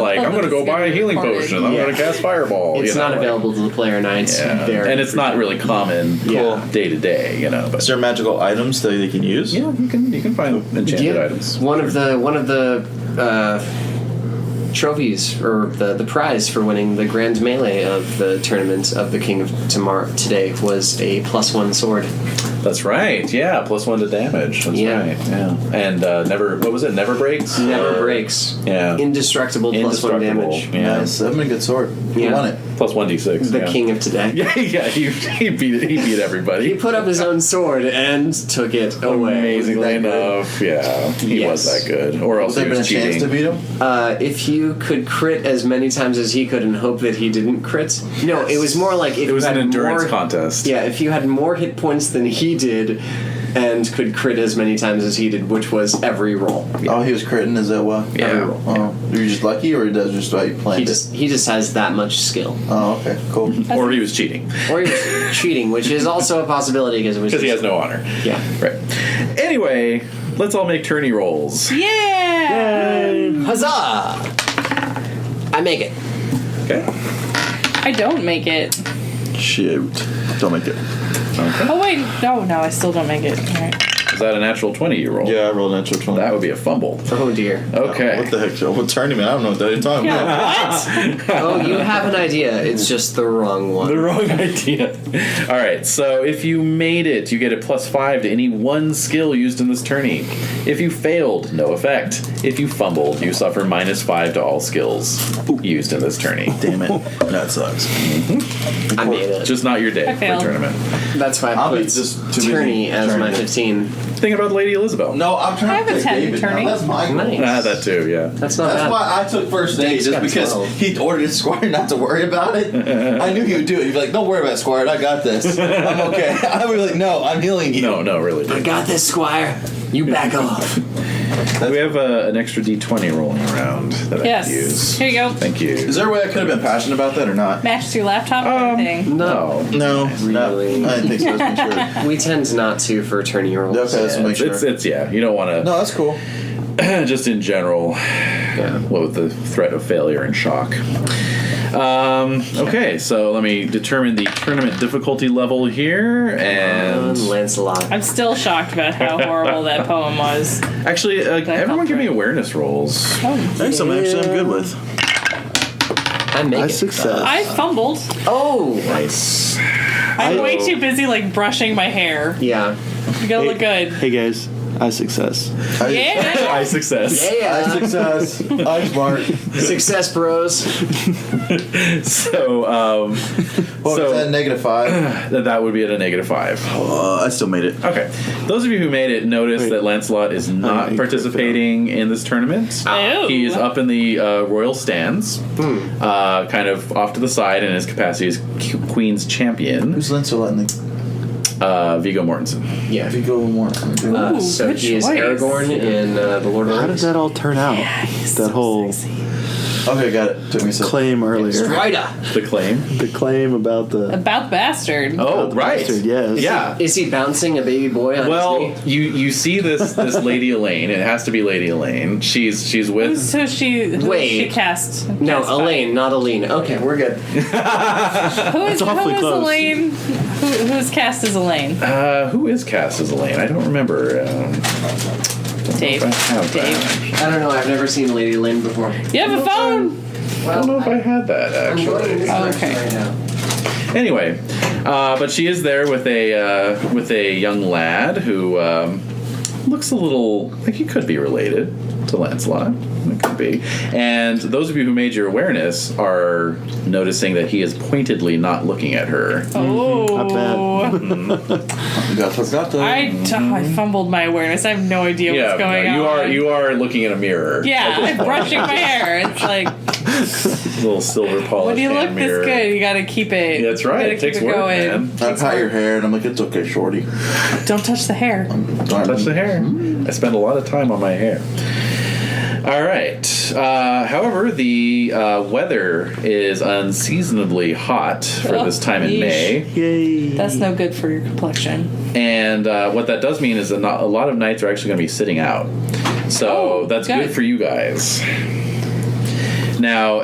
like, I'm going to go buy a healing potion. I'm going to cast fireball. It's you know, not like- available to the player now. It's Yeah. very and it's not really common Yeah. day to day, you know. But Is there magical items that they can use? yeah, you can you can find enchanted yeah, items. One of the one of the uh, trophies or the the prize for winning the grand melee of the tournament of the King of Tomorrow today was a plus one sword. That's right. Yeah, plus one to damage. That's Yeah. right. Yeah, and uh, never what was it? Never breaks. Never Or- breaks. Mm. Yeah. Indestructible, plus one Indestructible. damage. Yeah. Nice. That'd been a Uh, good sword. You Yeah. won it. Plus one d six. The yeah. king of today. Yeah, yeah. He, he beat he beat He everybody. put up his own sword and took it away. Amazingly Wasn't that good? enough, yeah, he was Yes. that good, or else Was there he been a was cheating. chance to beat him? Uh, if you could crit as many times as he could and hope that he didn't crit. No, it was more like if it was you an had endurance more, contest. Yeah, if you had more hit points than he did and could crit as many times as he did, which was every roll. Oh, he was critting. Is that why? Yeah. Oh, you're just lucky, or that's just how you planned He it? just he just has that much skill. oh, okay, cool. or he was cheating Or he was cheating, which is also a possibility because it was because he has just- no honor. Yeah. Right. Anyway, let's all make tourney rolls. Yeah. Huzzah! I make it. Okay. I don't make it. Shoot, don't make it. Oh wait, no, no, I still don't make it. All right. Is that a natural 20 you roll? Yeah, I rolled an natural twenty. That would be a fumble. Oh dear. Okay. What the heck, Joe? What tournament? I don't know what that you're talking about. Yeah, what? Oh, you have an idea. It's just the wrong one. The wrong idea. All right, so if you made it, you get a plus five to any one skill used in this tourney. If you failed, no effect. If you fumbled, you suffer minus five to all skills used in this tourney. Damn it, that sucks. I made it. Just not your day I for failed. tournament. That's why I I'll be put just too busy Tierney as trying my to- 15. Think about Lady Elizabeth. No, I'm I trying have to a take 10 David. attorney. That's my Nice. Ah, that too, yeah. That's not bad. That's why I took first aid, just got because 12. he ordered his squire not to worry about it. I knew he would do it. He'd be like, "Don't worry about it, squire. I got this. I'm okay." I would be like, "No, I'm healing you." No, no, really. I dude. got this, Squire. You back off. We have uh, an extra d20 rolling around that I yes. can use. Here you go. Thank you. Is there a way I could have been passionate about that or not? Matched your laptop Um, um, thing. No. No, no, Really? I didn't think so. Just make sure. We tend not to for attorney rolls. Okay, let's make sure. It's, it's, yeah, you don't want to. no, that's cool. Uh, just in general, what with the threat of failure and shock. Um, okay, so let me determine the tournament difficulty level here, Um, and Lancelot. I'm still shocked about how horrible that poem was. actually, uh, I everyone help, give me right? awareness rolls. Oh, Thanks, I'm actually I'm good with. I make it. success. I fumbled. Oh! Nice. I'm way too busy like brushing my hair. Yeah. You gotta look good. Hey guys, I success. Yeah. High success. Yeah. success. I smart. uh, Success, bros. So, um, What So- was that? Negative five. th- that would be at a negative five. Uh, I still made it. Okay, those of you who made it notice that Lancelot is not he crit participating in this tournament. Ew. He is up in the uh, royal stands, uh, kind of off to the side in his capacity as Q- Queen's champion, Who's Lancelot in the uh, Vigo Mortensen. Yeah. Vigo Mortensen? Uh, Ooh, so good he is choice. Aragorn in uh, The Lord of the How did Rings. that all turn out? that whole Okay, got it. Took me a second. claim earlier. Strider. The claim. The claim about the About the bastard. Oh, the right. bastard, yes. Yeah. Is he bouncing a baby boy on Well, his knee? you you see this this Lady Elaine. It has to be Lady Elaine. She's she's with. So she who Wait. she cast. No, cast by? Elaine, not Aline. Okay, we're good. Who is, who awfully is close. Elaine? Who, who's cast as Elaine? Uh, who is cast as Elaine? I don't remember. Um, Dave. I have that. Dave. I don't know. I've never seen Lady Lynn before. You have a phone. I don't know if I had that I'm actually. going in this Oh, direction okay. right now. Anyway, uh, but she is there with a uh, with a young lad who um, looks a little like he could be related to Lancelot. It could be. And those of you who made your awareness are noticing that he is pointedly not looking at her. Oh. I, You got forgot that. t- I fumbled my awareness. I have no idea Mm-hmm. yeah, what's going no, you on. are you are looking in a mirror. Yeah, I'm brushing my hair. It's like little silver polished when you hand look mirror. this good, you gotta keep it. That's You right. gotta It takes keep work, going. man. I pat your hair and I'm like, it's okay, shorty. Don't touch the hair. Touch the hair. Mm-hmm. I spend a lot of time on my hair. All right. Uh, however, the uh, weather is unseasonably hot for Oh, this time in yeesh. May, yay. That's no good for your complexion. and uh, what that does mean is that not, a lot of nights are actually going to be sitting out. So Oh, that's good good. for you guys. Now,